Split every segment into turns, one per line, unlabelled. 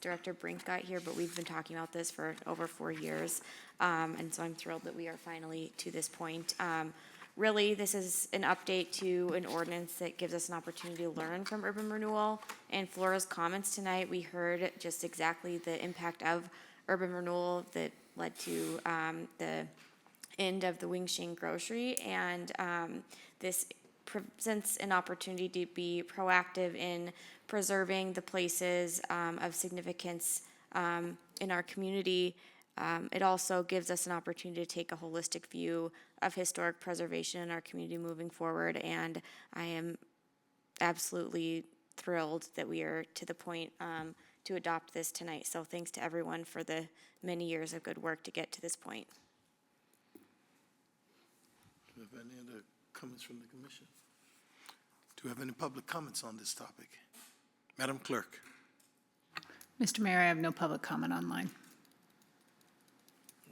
Director Brink got here, but we've been talking about this for over four years. Um, and so I'm thrilled that we are finally to this point. Um, really, this is an update to an ordinance that gives us an opportunity to learn from urban renewal. And Flora's comments tonight, we heard just exactly the impact of urban renewal that led to, um, the end of the Wing Shing Grocery, and um, this presents an opportunity to be proactive in preserving the places um, of significance um, in our community. Um, It also gives us an opportunity to take a holistic view of historic preservation in our community moving forward, and I am absolutely thrilled that we are to the point um, to adopt this tonight. So thanks to everyone for the many years of good work to get to this point.
Do we have any other comments from the commission? Do we have any public comments on this topic? Madam Clerk?
Mr. Mayor, I have no public comment online.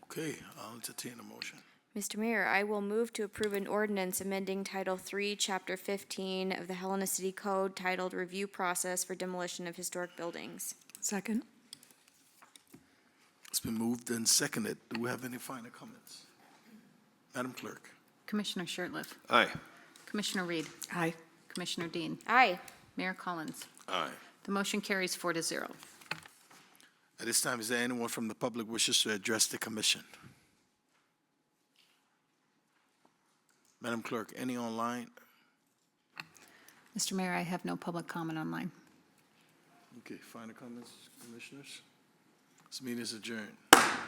Okay, I'll entertain a motion.
Mr. Mayor, I will move to approve an ordinance amending Title III, Chapter 15 of the Helena City Code titled Review Process for Demolition of Historic Buildings.
Second.
It's been moved and seconded. Do we have any final comments? Madam Clerk?
Commissioner Shertliff,
Aye.
Commissioner Reed,
Aye.
Commissioner Dean,
Aye.
Mayor Collins.
Aye.
The motion carries four to zero.
At this time, is there anyone from the public wishes to address the commission? Madam Clerk, any online?
Mr. Mayor, I have no public comment online.
Okay, final comments, commissioners? This meeting is adjourned.